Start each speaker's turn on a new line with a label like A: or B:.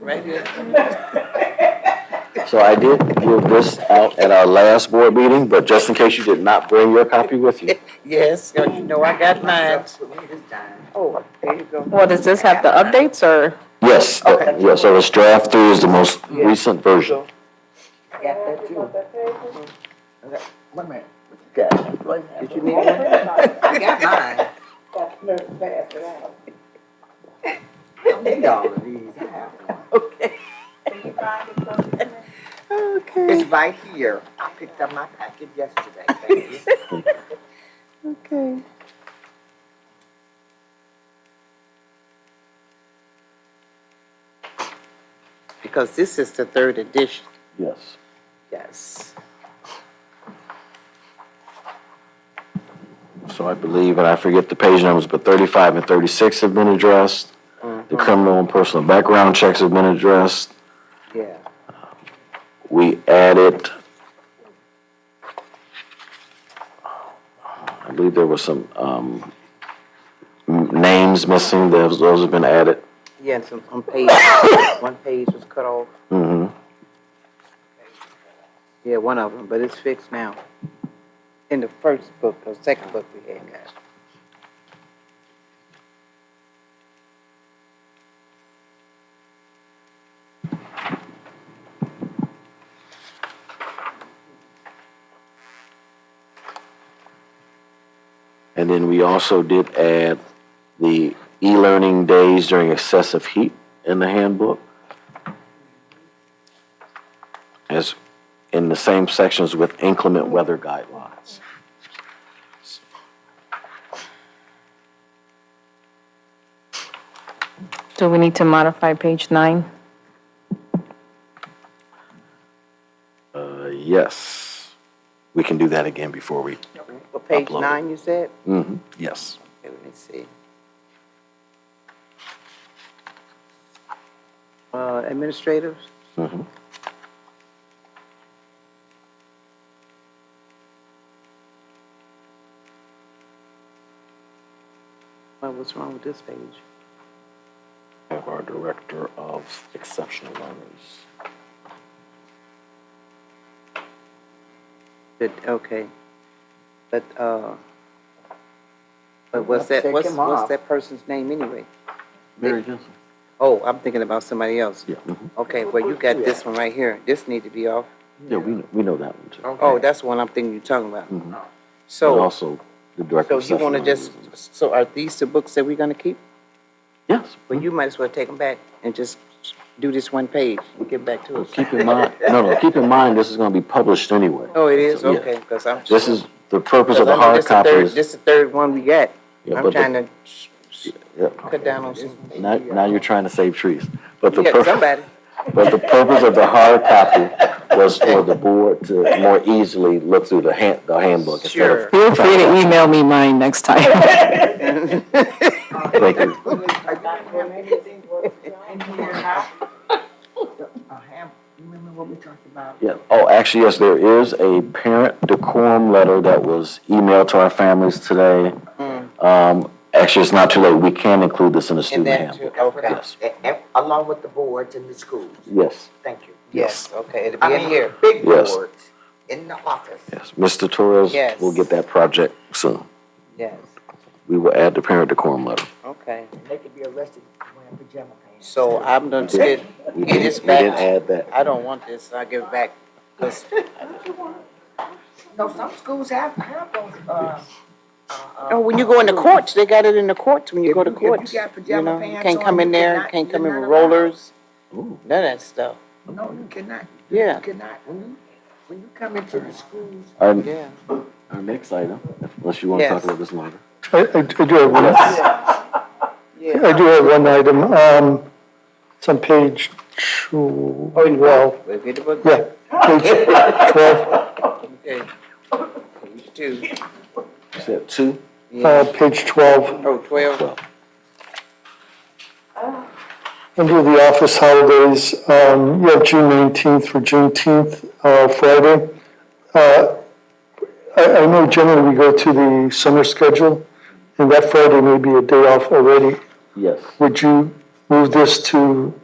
A: right here.
B: So I did give this out at our last board meeting, but just in case you did not bring your copy with you.
A: Yes, you know I got mine. Oh, there you go.
C: Well, does this have the updates or?
B: Yes,
C: Okay.
B: yeah, so it's draft three is the most recent version.
A: Got that too. Okay, Wait a minute. Got it. Did you need one? I got mine. I need all of these. I have one.
C: Okay,
A: It's right here. I picked up my packet yesterday. Thank you.
C: okay.
A: Because this is the third edition.
B: Yes.
A: Yes.
B: So I believe, and I forget the page numbers, but thirty-five and thirty-six have been addressed. The criminal and personal background checks have been addressed.
A: Yeah.
B: We added, I believe there were some, um, m- names missing, those, those have been added.
A: Yeah, and some, on page, one page was cut off.
B: hmm
A: Yeah, one of them, but it's fixed now. In the first book, or second book we had got.
B: And then we also did add the e-learning days during excessive heat in the handbook. As in the same sections with inclement weather guidelines.
C: Do we need to modify page nine?
B: Uh, yes, we can do that again before we,
A: Well, page
B: Upload it.
A: nine, you said?
B: Mhm, yes.
A: Okay, Let me see. Uh, administrators?
B: Mhm.
A: Well, what's wrong with this page?
B: Have our director of exceptional learners.
A: But, okay. But, uh, but what's that, what's, what's that person's name anyway? Mary
B: Johnson.
A: Oh, I'm thinking about somebody else.
B: Yeah, mhm.
A: Okay, well, you got this one right here. This need to be off.
B: yeah, we, know- we know that one too.
A: Oh, that's the one I'm thinking you're talking about.
B: Mhm. And
A: So,
B: also the director
A: so
B: of
A: you
B: exceptional
A: wanna
B: learners.
A: just, so are these the books that we're gonna keep?
B: Yes.
A: Well, you might as well take them back and just do this one page and get back to us.
B: Keep in mind, no, no, keep in mind, this is gonna be published anyway.
A: Oh, it is?
B: So, yeah.
A: Okay, because I'm.
B: This is, the purpose
A: Because
B: of
A: I
B: the
A: know
B: hard
A: this the
B: copy
A: third,
B: is.
A: this the third one we got.
B: yeah,
A: I'm
B: but the-
A: trying to sh- sh-
B: yeah.
A: cut down on some.
B: Now, now you're trying to save trees. But the,
A: Yeah,
B: pur-
A: somebody.
B: but the purpose of the hard copy was for the board to more easily look through the hand, the handbook instead
A: Sure.
B: of.
C: Feel free to email me mine next time.
B: Thank you.
A: Remember what we talked about?
B: Yeah, oh, actually, yes, there is a parent decorum letter that was emailed to our families today. Um, actually, it's not too late. We can include this in the
A: Hmm. And oh,
B: student
A: that too,
B: handbook.
A: okay.
B: Yes,
D: Along with the boards and the schools,
B: yes.
D: thank you.
A: Yes, okay, it'll
D: I
A: be in
D: mean,
A: here.
D: big
B: Yes.
D: boards in the office.
B: Yes, Mr. Torres
A: Yes.
B: will get that project soon.
A: Yes,
B: We will add the parent decorum letter.
A: okay.
D: And they could be arrested wearing pajama pants.
A: So I'm gonna
B: We did-
A: get,
B: We
A: it is
B: didn't, we didn't
A: back.
B: add that.
A: I don't want this, I give it back. 'Cause
D: No, some schools have, have those, uh, uh, uh,
A: No, Oh, when you go in the courts, they got it in the courts, when um, you go to
D: If you- if you
A: courts.
D: got pajama
A: know,
D: pants
A: Can't
D: on,
A: come in
D: you
A: there,
D: cannot-
A: can't come in
D: you're
A: with
D: not allowed.
A: rollers,
B: Ooh.
A: none of that stuff,
D: no, you cannot,
A: yeah,
D: you cannot, when you, when you come into the schools,
B: Our,
A: yeah.
B: our next item, unless you want to talk
A: Yes.
B: about this longer.
E: I, I do have one, I
A: Yeah.
E: do have one item, um, it's on page two, oh, well,
A: We'll get the book.
E: yeah, page twelve,
A: Okay.
E: Um,
A: Page two.
B: You said two?
A: Yeah.
E: uh, page twelve,
A: Oh, twelve,
E: under the office holidays, um, you have June nineteenth for Juneteenth, uh, Friday. Uh, I, I know generally we go to the summer schedule, and that Friday may be a day off already.
B: Yes.
E: Would you move this to